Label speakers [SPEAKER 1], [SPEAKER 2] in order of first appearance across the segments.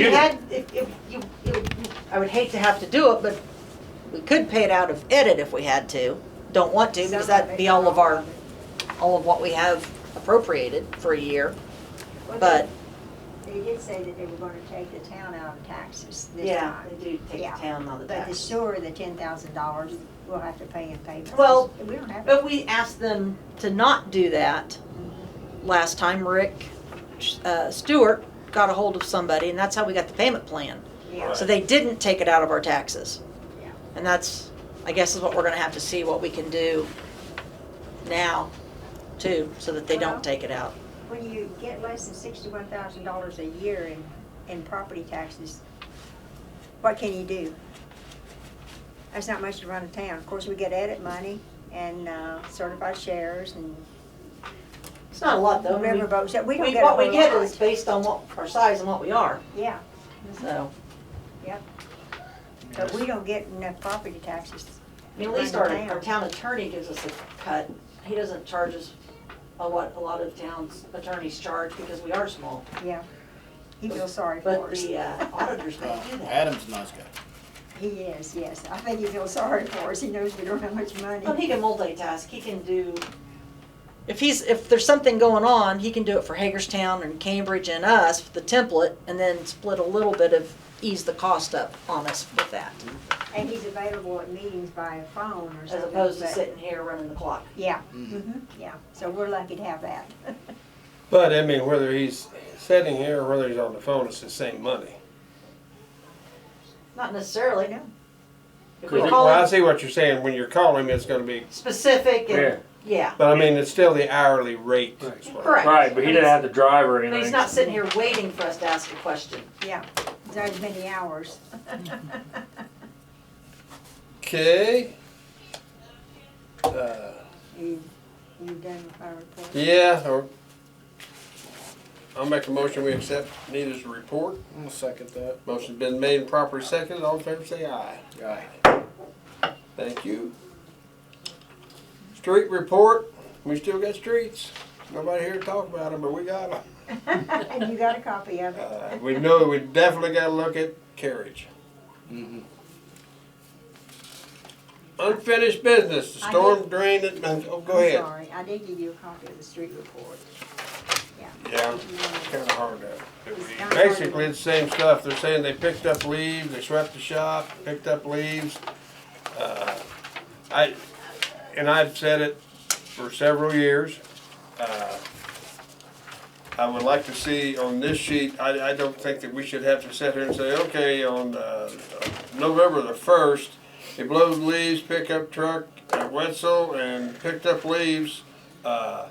[SPEAKER 1] You had, if, if you, you- I would hate to have to do it, but we could pay it out of edit if we had to. Don't want to, because that'd be all of our, all of what we have appropriated for a year,
[SPEAKER 2] Well, they-
[SPEAKER 1] but.
[SPEAKER 2] They did say that they were gonna take the town out of taxes this time.
[SPEAKER 1] They do take
[SPEAKER 2] Yeah.
[SPEAKER 1] the town on the
[SPEAKER 2] But the
[SPEAKER 1] tax.
[SPEAKER 2] sewer, the ten thousand dollars, we'll have to pay in payments.
[SPEAKER 1] Well,
[SPEAKER 2] We don't have,
[SPEAKER 1] But we asked them to not do that. Last time Rick, uh, Stewart got a hold of somebody, and that's how we got the payment plan.
[SPEAKER 2] yeah,
[SPEAKER 1] So they didn't take it out of our taxes.
[SPEAKER 2] Yeah.
[SPEAKER 1] And that's, I guess is what we're gonna have to see what we can do now too, so that they
[SPEAKER 2] Well-
[SPEAKER 1] don't take it out.
[SPEAKER 2] when you get less than sixty-one thousand dollars a year in, in property taxes, what can you do? That's not much to run a town. Of course, we get edit money and, uh, certified shares and
[SPEAKER 1] It's not a lot though.
[SPEAKER 2] riverboats, we don't
[SPEAKER 1] We,
[SPEAKER 2] get a
[SPEAKER 1] what
[SPEAKER 2] whole
[SPEAKER 1] we get
[SPEAKER 2] lot.
[SPEAKER 1] is based on what, our size and what we are,
[SPEAKER 2] Yeah,
[SPEAKER 1] so.
[SPEAKER 2] but we don't get enough property taxes.
[SPEAKER 1] I mean, at least our, our town attorney gives us a cut. He doesn't charge us a lot, a lot of towns attorneys charge because we are small.
[SPEAKER 2] Yeah, he feels sorry for
[SPEAKER 1] But
[SPEAKER 2] us.
[SPEAKER 1] the uh, auditors don't do that.
[SPEAKER 3] Adam's a nice guy.
[SPEAKER 2] He is, yes. I think he feels sorry for us. He knows we don't have much
[SPEAKER 1] Well, Oh, he
[SPEAKER 2] money.
[SPEAKER 1] can multitask, he can do, if he's, if there's something going on, he can do it for Hagerstown and Cambridge and us, the template, and then split a little bit of, ease the cost up on us with that,
[SPEAKER 2] And he's available at meetings by phone or
[SPEAKER 1] as
[SPEAKER 2] something.
[SPEAKER 1] opposed to
[SPEAKER 2] but-
[SPEAKER 1] sitting here running the clock.
[SPEAKER 2] Yeah,
[SPEAKER 4] Mm.
[SPEAKER 2] mhm, yeah. So we're lucky to have that.
[SPEAKER 4] But I mean, whether he's sitting here or whether he's on the phone, it's the same money.
[SPEAKER 1] Not necessarily,
[SPEAKER 2] No.
[SPEAKER 1] If we
[SPEAKER 4] Well, I
[SPEAKER 1] call him
[SPEAKER 4] see what you're saying. When you're calling him, it's gonna be,
[SPEAKER 1] specific and, yeah,
[SPEAKER 4] but I mean, it's still the hourly rate. is what-
[SPEAKER 1] correct.
[SPEAKER 5] Right, but he didn't have to drive or
[SPEAKER 1] But
[SPEAKER 5] anything.
[SPEAKER 1] he's not sitting here waiting for us to ask a question.
[SPEAKER 2] Yeah, it's not as many hours.
[SPEAKER 4] Okay. Uh,
[SPEAKER 2] You, you done with my report?
[SPEAKER 4] yeah, or I'll make a motion, we accept Nita's report.
[SPEAKER 3] I'll second that.
[SPEAKER 4] Motion's been made and properly seconded. All in favor, say aye.
[SPEAKER 3] Guy.
[SPEAKER 4] Thank you. Street report. We still got streets. Nobody here to talk about them, but we got them.
[SPEAKER 2] And you got a copy of it?
[SPEAKER 4] Uh, we know we definitely got to look at carriage.
[SPEAKER 3] Mhm.
[SPEAKER 4] Unfinished business, the
[SPEAKER 2] I
[SPEAKER 4] storm drain, that- oh, go ahead.
[SPEAKER 2] I'm sorry. I did give you a copy of the street report. You
[SPEAKER 4] Yeah,
[SPEAKER 2] wanna-
[SPEAKER 4] kinda hard to.
[SPEAKER 2] It's kinda hard to-
[SPEAKER 4] Basically, it's the same stuff, they're saying they picked up leaves, they swept the shop, picked up leaves. Uh, I, and I've said it for several years. Uh, I would like to see on this sheet, I, I don't think that we should have to sit here and say, okay, on, uh, November the first, they blow the leaves, pickup truck at Wetzel and picked up leaves. Uh,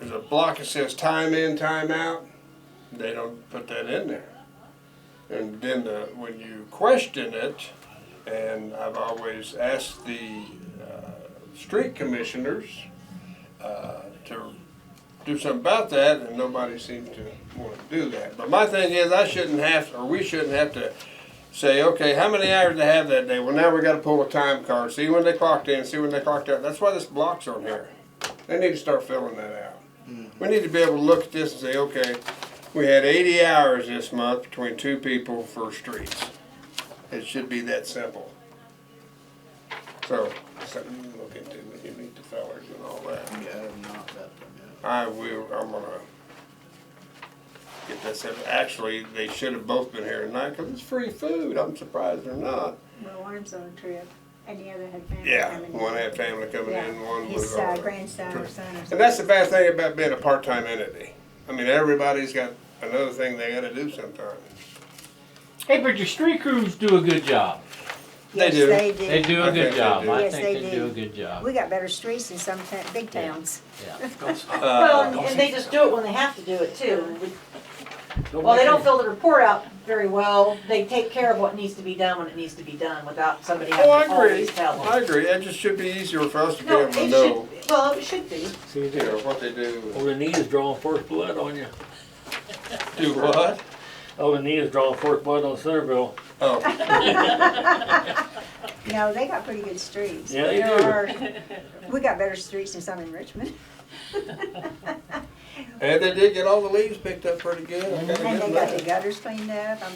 [SPEAKER 4] There's a block that says time in, time out. They don't put that in there. And then the, when you question it, and I've always asked the uh, street commissioners uh, to do something about that, and nobody seems to want to do that. But my thing is, I shouldn't have, or we shouldn't have to say, okay, how many hours they have that day? Well, now we got to pull a time card, see when they clocked in, see when they clocked out. That's why this block's on here. They need to start filling that out. We need to be able to look at this and say, okay, we had eighty hours this month between two people for streets. It should be that simple. So, something you look into when you meet the fellers and all that.
[SPEAKER 3] Yeah, Adam not that one,
[SPEAKER 4] I will, I'm gonna get that set. Actually, they should have both been here tonight because it's free food. I'm surprised they're not.
[SPEAKER 2] Well, one's on a trip and the other had family
[SPEAKER 4] Yeah,
[SPEAKER 2] coming in.
[SPEAKER 4] one had family coming
[SPEAKER 2] Yeah,
[SPEAKER 4] in, one was.
[SPEAKER 2] His uh,
[SPEAKER 4] over.
[SPEAKER 2] grandson or son or something.
[SPEAKER 4] And that's the bad thing about being a part-time entity. I mean, everybody's got another thing they gotta do sometimes.
[SPEAKER 5] Hey, but your street crews do a good job.
[SPEAKER 4] They
[SPEAKER 2] Yes,
[SPEAKER 4] do.
[SPEAKER 5] They do
[SPEAKER 4] I
[SPEAKER 5] a
[SPEAKER 4] think
[SPEAKER 5] good
[SPEAKER 4] they
[SPEAKER 5] job.
[SPEAKER 4] do.
[SPEAKER 5] I
[SPEAKER 2] Yes, they
[SPEAKER 5] think they do a
[SPEAKER 2] do.
[SPEAKER 5] good job.
[SPEAKER 2] We got better streets in some ta- big towns.
[SPEAKER 5] Yeah.
[SPEAKER 1] Well, and-
[SPEAKER 4] Uh,
[SPEAKER 1] and they just do it when they have to do it too. Well, they don't fill the report out very well. They take care of what needs to be done when it needs to be done without somebody
[SPEAKER 4] Oh, I
[SPEAKER 1] having to always
[SPEAKER 4] agree,
[SPEAKER 1] tell
[SPEAKER 4] I
[SPEAKER 1] them.
[SPEAKER 4] agree, it just should be easier for us to be
[SPEAKER 1] No,
[SPEAKER 4] able
[SPEAKER 1] it
[SPEAKER 4] to
[SPEAKER 1] should,
[SPEAKER 4] know,
[SPEAKER 1] well, it should be.
[SPEAKER 4] you know, what they do,
[SPEAKER 5] Olenita's drawing first blood on you. Oh,
[SPEAKER 4] do what.
[SPEAKER 5] Olenita's drawing first blood on Centerville.
[SPEAKER 4] Oh,
[SPEAKER 2] No, they got pretty good streets.
[SPEAKER 5] Yeah, they
[SPEAKER 2] There
[SPEAKER 5] do.
[SPEAKER 2] are- We got better streets than some in Richmond.
[SPEAKER 4] and they did get all the leaves picked up pretty good. I gotta
[SPEAKER 2] And
[SPEAKER 4] give
[SPEAKER 2] they
[SPEAKER 4] 'em
[SPEAKER 2] got
[SPEAKER 4] that.
[SPEAKER 2] the gutters cleaned up. I mean,